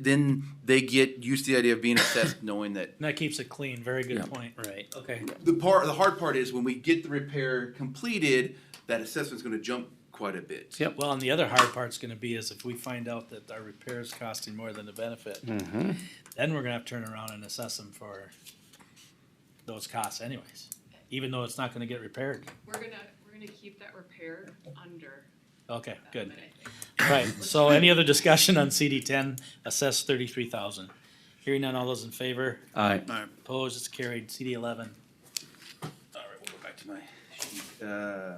Then they get used to the idea of being assessed, knowing that And that keeps it clean. Very good Yeah. point. Right. Okay. the part, the hard part is when we get the repair completed, that assessment's gonna jump quite a bit. Yep. Well, and the other hard part's gonna be is if we find out that our repair is costing more than the benefit, Mm-hmm. then we're gonna have to turn around and assess them for those costs anyways, even though it's not gonna get repaired. We're gonna, we're gonna keep that repair under Okay, that good. limit, I think. Right. So any other discussion on CD ten, assess thirty-three thousand? Hearing none, all those in favor? Aye. Opposed? It's carried. CD eleven. All right, we'll go back to my sheet. Uh,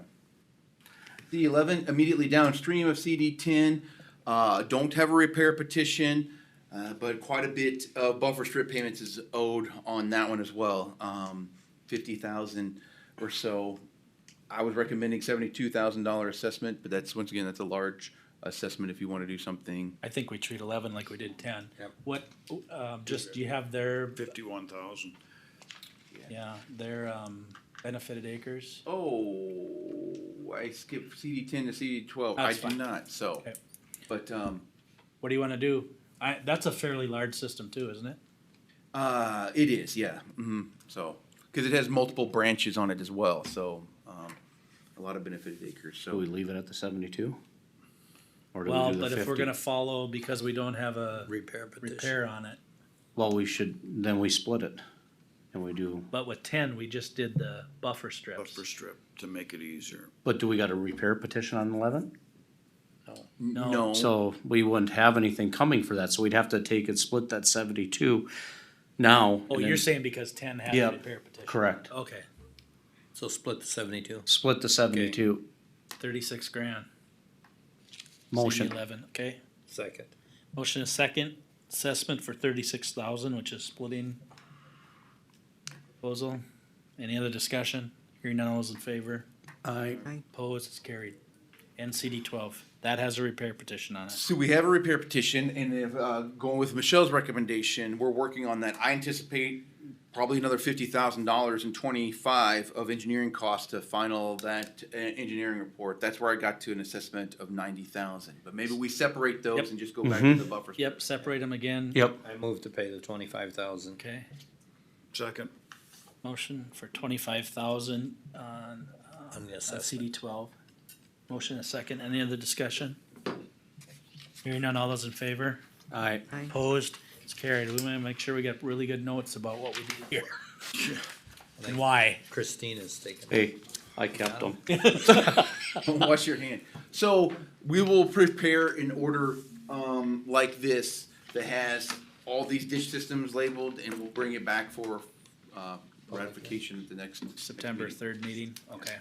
CD eleven, immediately downstream of CD ten, uh, don't have a repair petition, uh, but quite a bit of buffer strip payments is owed on that one as well. Um, fifty thousand or so. I was recommending seventy-two thousand dollar assessment, but that's, once again, that's a large assessment if you wanna do something. I think we treat eleven like we did ten. Yep. What, um, just, do you have their, Fifty-one thousand. yeah, their, um, benefited acres? Oh, I skipped CD ten to CD twelve. I That's did fine. not, so. Okay. But, um, What do you wanna do? I, that's a fairly large system too, isn't it? Uh, it is, yeah. hmm So, because it has multiple branches on it as well, so um, a lot of benefited acres. Do So, we leave it at the seventy-two? Or do we Well, do the but if we're 50? gonna follow, because we don't have a Repair petition. repair on it, Well, we should, then we split it. And we do, but with ten, we just did the buffer strips. Buffer strip to make it easier. but do we got a repair petition on eleven? no. no, So we wouldn't have anything coming for that, so we'd have to take and split that seventy-two now. Oh, and you're then- saying because ten had a Yep, repair petition? Correct. Okay, So split the seventy-two. Split the seventy-two. thirty-six grand. CD Motion. Eleven, okay. Second. Motion is second, assessment for thirty-six thousand, which is splitting proposal. Any other discussion? Hearing none, all those in favor? Aye. Opposed, it's carried. NCD twelve, that has a repair petition on it. so we have a repair petition, and if uh, going with Michelle's recommendation, we're working on that. I anticipate probably another fifty thousand dollars and twenty-five of engineering costs to final that uh, engineering report. That's where I got to an assessment of ninety thousand. But maybe we separate those Yep. and just go back Mm-hmm. to the buffer. Yep, separate them again. Yep. I move to pay the twenty-five thousand. Okay, Second. motion for twenty-five thousand on, uh, On the uh, assessment. CD twelve. Motion a second, any other discussion? Hearing none, all those in favor? Aye. Opposed, it's carried. We wanna make sure we get really good notes about what we did here. And why. Christina's taking. Hey, I kept them. Wash your hand. So we will prepare an order um, like this that has all these ditch systems labeled, and we'll bring it back for uh, ratification at the next September meeting. third meeting, okay,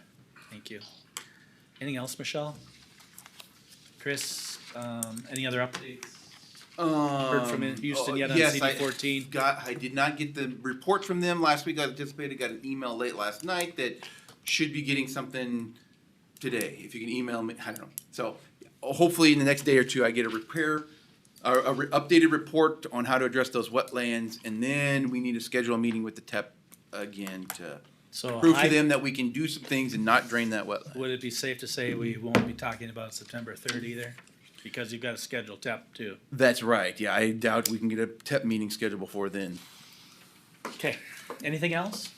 thank you. Anything else, Michelle? Chris, um, any other updates? Heard from Um, Houston oh, yet on yes, CD I fourteen? Got I did not get the report from them last week. I anticipated got an email late last night that should be getting something today. If you can email me, I don't know. So hopefully in the next day or two, I get a repair, a, a re- updated report on how to address those wetlands, and then we need to schedule a meeting with the TEP again to So prove to I, them that we can do some things and not drain that wetland. would it be safe to say we won't be talking about September third either? Because you've got a scheduled TEP too. That's right. Yeah, I doubt we can get a TEP meeting scheduled before then. Okay, anything else?